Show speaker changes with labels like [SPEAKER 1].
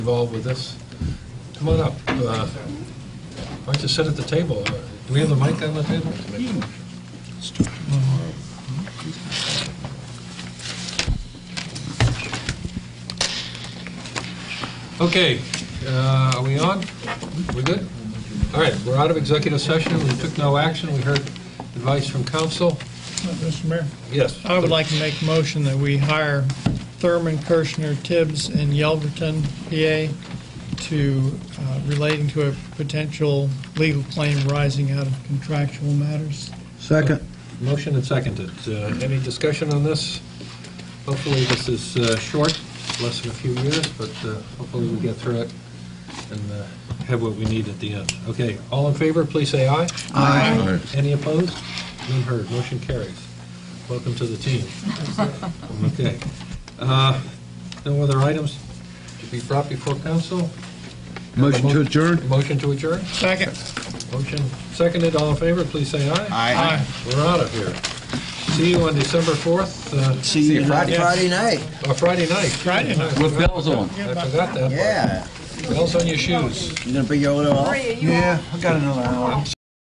[SPEAKER 1] involved with this. Come on up. Uh, Why don't you sit at the table? Uh, Do we have the mic on the table? Okay, uh, are we on? We're good? All right, we're out of executive session. We took no action. We heard advice from council.
[SPEAKER 2] Mr. Mayor,
[SPEAKER 1] Yes.
[SPEAKER 2] I would like to make a motion that we hire Thurman Kirschner Tibbs in Yelverton, PA, to, uh, relating to a potential legal claim arising out of contractual matters.
[SPEAKER 3] Second.
[SPEAKER 1] Motion and seconded. Uh, Any discussion on this? Hopefully, this is uh, short, less than a few years, but uh, hopefully we get through it and uh, have what we need at the end. Okay, all in favor, please say aye.
[SPEAKER 3] Aye.
[SPEAKER 1] Any opposed? None heard, motion carries. Welcome to the team. Okay. Uh, No other items to be brought before council?
[SPEAKER 3] Motion to adjourn?
[SPEAKER 1] Motion to adjourn?
[SPEAKER 2] Second.
[SPEAKER 1] Motion seconded, all in favor, please say aye.
[SPEAKER 4] Aye.
[SPEAKER 1] We're out of here. See you on December 4th, uh,
[SPEAKER 3] See you Friday.
[SPEAKER 4] Friday night,
[SPEAKER 1] uh, Friday night.
[SPEAKER 2] Friday night.
[SPEAKER 1] With bells on.
[SPEAKER 2] Yeah,
[SPEAKER 1] I forgot that. part.
[SPEAKER 4] yeah.
[SPEAKER 1] Bells on your shoes.
[SPEAKER 4] You gonna bring your little...
[SPEAKER 5] Maria, you all
[SPEAKER 3] Yeah, I got another hour.